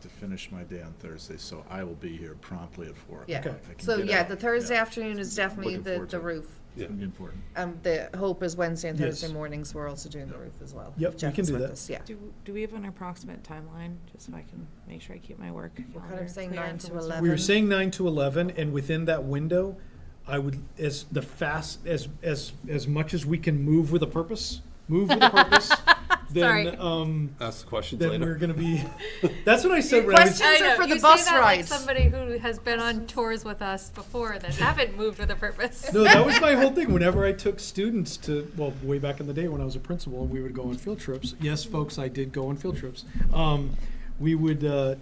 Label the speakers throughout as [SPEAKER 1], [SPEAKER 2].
[SPEAKER 1] to finish my day on Thursday, so I will be here promptly at four
[SPEAKER 2] Yeah.
[SPEAKER 1] o'clock.
[SPEAKER 2] Okay.
[SPEAKER 1] I can
[SPEAKER 2] So,
[SPEAKER 1] get
[SPEAKER 2] yeah,
[SPEAKER 1] out.
[SPEAKER 2] the Thursday
[SPEAKER 1] Yeah.
[SPEAKER 2] afternoon is definitely
[SPEAKER 1] Looking
[SPEAKER 2] the,
[SPEAKER 1] forward to
[SPEAKER 2] the
[SPEAKER 1] it.
[SPEAKER 2] roof.
[SPEAKER 1] It's gonna be important.
[SPEAKER 2] Um, the hope is Wednesday and
[SPEAKER 3] Yes.
[SPEAKER 2] Thursday mornings, we're also doing the
[SPEAKER 1] Yep.
[SPEAKER 2] roof as well.
[SPEAKER 3] Yep,
[SPEAKER 2] If
[SPEAKER 3] we
[SPEAKER 2] Jeff
[SPEAKER 3] can
[SPEAKER 2] is
[SPEAKER 3] do
[SPEAKER 2] with
[SPEAKER 3] that.
[SPEAKER 2] us, Yeah.
[SPEAKER 4] Do, do we have an approximate timeline, just so I can make sure I keep my work
[SPEAKER 2] We're kind of
[SPEAKER 4] calendar
[SPEAKER 2] saying
[SPEAKER 4] clear
[SPEAKER 2] nine
[SPEAKER 4] for
[SPEAKER 2] to
[SPEAKER 4] what's-
[SPEAKER 2] 11.
[SPEAKER 3] We were saying nine to eleven, and within that window, I would, as the fast, as, as, as much as we can move with a purpose, move with a purpose,
[SPEAKER 4] Sorry.
[SPEAKER 3] then, um,
[SPEAKER 5] Ask the questions
[SPEAKER 3] then we're
[SPEAKER 5] later.
[SPEAKER 3] gonna be, that's what I said when I was.
[SPEAKER 2] Questions are for the bus rides.
[SPEAKER 6] somebody who has been on tours with us before that haven't moved with a purpose.
[SPEAKER 3] No, that was my whole thing. Whenever I took students to, well, way back in the day when I was a principal, we would go on field trips. Yes, folks, I did go on field trips. Um, we would, uh,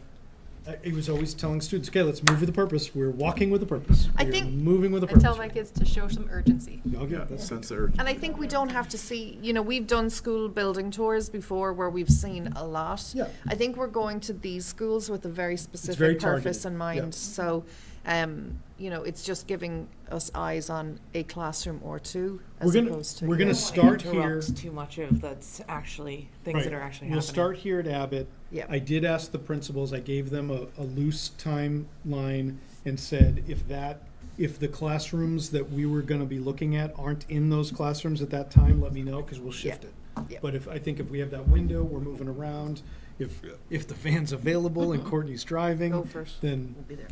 [SPEAKER 3] I, it was always telling students, okay, let's move with a purpose. We're walking with a purpose.
[SPEAKER 2] I
[SPEAKER 3] We're
[SPEAKER 2] think-
[SPEAKER 3] moving with a
[SPEAKER 6] I
[SPEAKER 3] purpose.
[SPEAKER 6] tell my kids to show some urgency.
[SPEAKER 3] Okay,
[SPEAKER 1] Oh, Yeah,
[SPEAKER 3] that's-
[SPEAKER 1] sense of urgency.
[SPEAKER 2] And I think we don't have to see, you know, we've done school building tours before where we've seen a lot.
[SPEAKER 3] Yeah.
[SPEAKER 2] I think we're going to these schools with a very
[SPEAKER 3] very
[SPEAKER 2] specific
[SPEAKER 3] targeted,
[SPEAKER 2] purpose in
[SPEAKER 3] yeah.
[SPEAKER 2] mind. So, um, you know, it's just giving us eyes on a classroom or two as
[SPEAKER 3] We're gonna-
[SPEAKER 2] opposed to.
[SPEAKER 3] we're
[SPEAKER 2] yeah.
[SPEAKER 3] gonna
[SPEAKER 4] I don't wanna
[SPEAKER 3] start here-
[SPEAKER 4] interrupt Too much of that's actually, things that
[SPEAKER 3] Right.
[SPEAKER 4] are actually happening.
[SPEAKER 3] We'll start here at Abbott.
[SPEAKER 2] Yeah.
[SPEAKER 3] I did ask the principals, I gave them a, a loose timeline and said, if that, if the classrooms that we were gonna be looking at aren't in those classrooms at that time, let me know, cause we'll shift it.
[SPEAKER 2] Yeah.
[SPEAKER 3] But if, I think if we have that window, we're moving around, if, if the van's available
[SPEAKER 2] Uh-huh.
[SPEAKER 3] and Courtney's
[SPEAKER 2] Go
[SPEAKER 3] driving,
[SPEAKER 2] first.
[SPEAKER 3] then
[SPEAKER 2] We'll be there.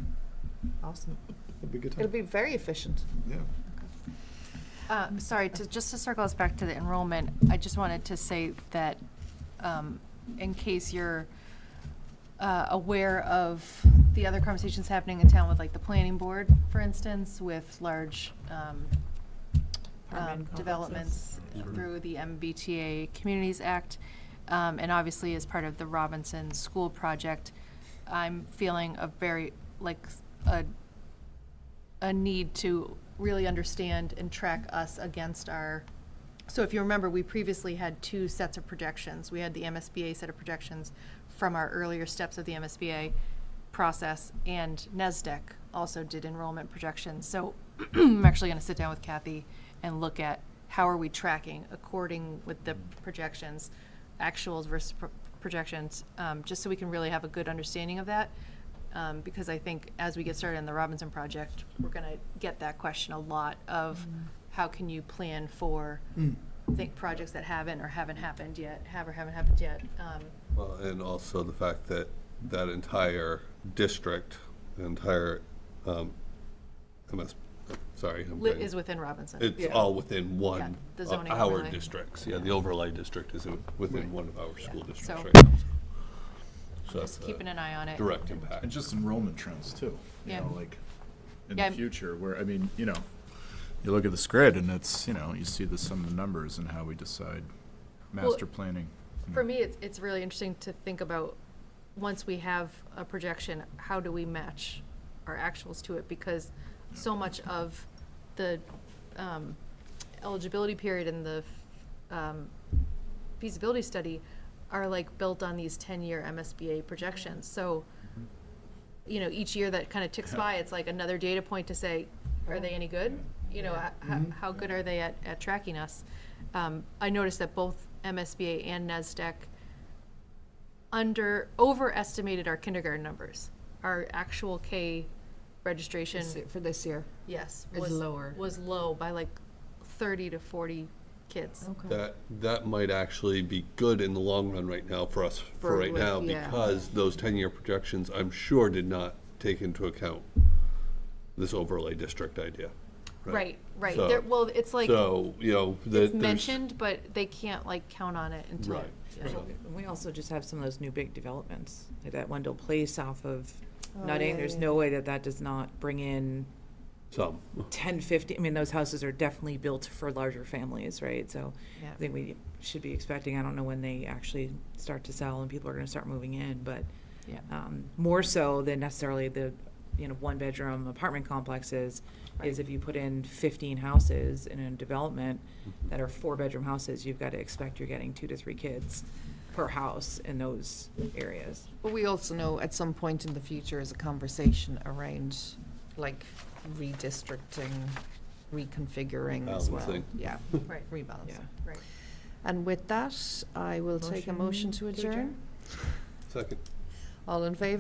[SPEAKER 2] Awesome.
[SPEAKER 3] it'll be a good
[SPEAKER 2] It'll
[SPEAKER 3] time.
[SPEAKER 2] be very efficient.
[SPEAKER 1] Yeah.
[SPEAKER 7] Uh, Sorry, to- just to circle us back to the enrollment, I just wanted to say that um, in case you're uh, aware of the other conversations happening in town with like the planning board, for instance, with large um, um,
[SPEAKER 4] Apartment
[SPEAKER 7] developments
[SPEAKER 5] complexes.
[SPEAKER 7] through the MBTA Communities Act. Um, And obviously, as part of the Robinson School Project, I'm feeling a very, like, a, a need to really understand and track us against our, so if you remember, we previously had two sets of projections. We had the MSBA set of projections from our earlier steps of the MSBA process, and NESDEC also did enrollment projections. So I'm actually going to sit down with Kathy and look at how are we tracking according with the projections, actuals versus pro- projections, um, just so we can really have a good understanding of that. Um, because I think as we get started in the Robinson project, we're going to get that question a lot of how can you plan for
[SPEAKER 5] Mm.
[SPEAKER 7] think projects that haven't or haven't happened yet, have or haven't happened yet. Um,
[SPEAKER 5] Well, and also the fact that that entire district, the entire, um, MS, sorry. I'm
[SPEAKER 7] li-
[SPEAKER 5] getting-
[SPEAKER 7] is within Robinson.
[SPEAKER 5] It's all within one
[SPEAKER 7] the
[SPEAKER 5] of
[SPEAKER 7] zoning
[SPEAKER 5] our
[SPEAKER 7] overlay.
[SPEAKER 5] districts. Yeah, the overlay district is within one of our school districts
[SPEAKER 7] So-
[SPEAKER 5] right now. So that's
[SPEAKER 7] Just keeping
[SPEAKER 5] a
[SPEAKER 7] an eye on it.
[SPEAKER 5] direct
[SPEAKER 1] And
[SPEAKER 5] impact.
[SPEAKER 1] just enrollment trends too, you
[SPEAKER 7] Yeah.
[SPEAKER 1] know, like in the
[SPEAKER 7] Yeah, I'm-
[SPEAKER 1] future where, I mean, you know, you look at this grid and it's, you know, you see the, some of the numbers and how we decide master planning.
[SPEAKER 7] For
[SPEAKER 1] Hmm.
[SPEAKER 7] me, it's, it's really interesting to think about, once we have a projection, how do we match our actuals to it? Because so much of the um, eligibility period and the um, feasibility study are like built on these ten-year MSBA projections. So, you know, each year that kind of ticks by, it's like another data point to say, are they any good? You know, h- how, how good are they at, at tracking us? Um, I noticed that both MSBA and NESDEC under, overestimated our kindergarten numbers. Our actual K registration,
[SPEAKER 2] For this year.
[SPEAKER 7] yes,
[SPEAKER 2] Is
[SPEAKER 7] was
[SPEAKER 2] lower.
[SPEAKER 7] Was low by like thirty to forty kids.
[SPEAKER 5] That, that might actually be good in the long run right now for us,
[SPEAKER 2] For
[SPEAKER 5] for right
[SPEAKER 2] what-
[SPEAKER 5] now,
[SPEAKER 2] yeah.
[SPEAKER 5] because those ten-year projections, I'm sure, did not take into account this overlay district idea.
[SPEAKER 7] Right, right.
[SPEAKER 5] So-
[SPEAKER 7] There, well, it's like,
[SPEAKER 5] So, you know, the.
[SPEAKER 7] it's
[SPEAKER 5] there's-
[SPEAKER 7] mentioned, but they can't like count on it until.
[SPEAKER 5] Right.
[SPEAKER 7] Yeah.
[SPEAKER 4] And we also just have some of those new big developments, like that Wendell Place off of Nutting, there's no way that that does not bring in
[SPEAKER 5] Some.
[SPEAKER 4] ten, fifty, I mean, those houses are definitely built for larger families, right? So
[SPEAKER 7] Yeah.
[SPEAKER 4] I think we should be expecting, I don't know when they actually start to sell and people are gonna start moving in, but
[SPEAKER 7] Yeah.
[SPEAKER 4] um, more so than necessarily the, you know, one-bedroom apartment complexes, is if you put in fifteen houses in a development
[SPEAKER 7] Mm-hmm.
[SPEAKER 4] that are four-bedroom houses, you've got to expect you're getting two to three kids per house in those areas.
[SPEAKER 2] But we also know at some point in the future is a conversation around like redistricting, reconfiguring as well.
[SPEAKER 5] Balancing.
[SPEAKER 2] Yeah,
[SPEAKER 7] Right,
[SPEAKER 4] Yeah.
[SPEAKER 2] rebalancing.
[SPEAKER 7] right.
[SPEAKER 2] And with that, I will take a motion to adjourn.
[SPEAKER 5] Second.
[SPEAKER 2] All in favor?